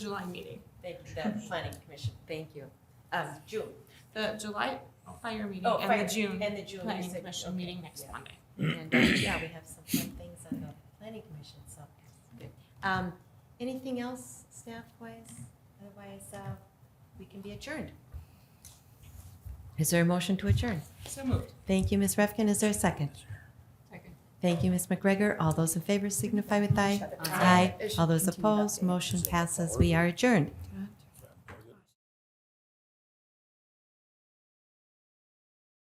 July meeting. Thank you, the planning commission, thank you. Um, June. The July fire meeting Oh, and fire- the June And the June. you planning said- commission okay, meeting next yeah. Monday. And, uh, yeah, we have some fun things on the planning commission, so it's good. Um, anything else staff-wise? Otherwise, uh, we can be adjourned. Is there a motion to adjourn? So moved. Thank you, Ms. Refkin. Is there a second? Second. Thank you, Ms. McGregor. All those in favor signify with aye. Aye. All those opposed, motion passes. We are adjourned.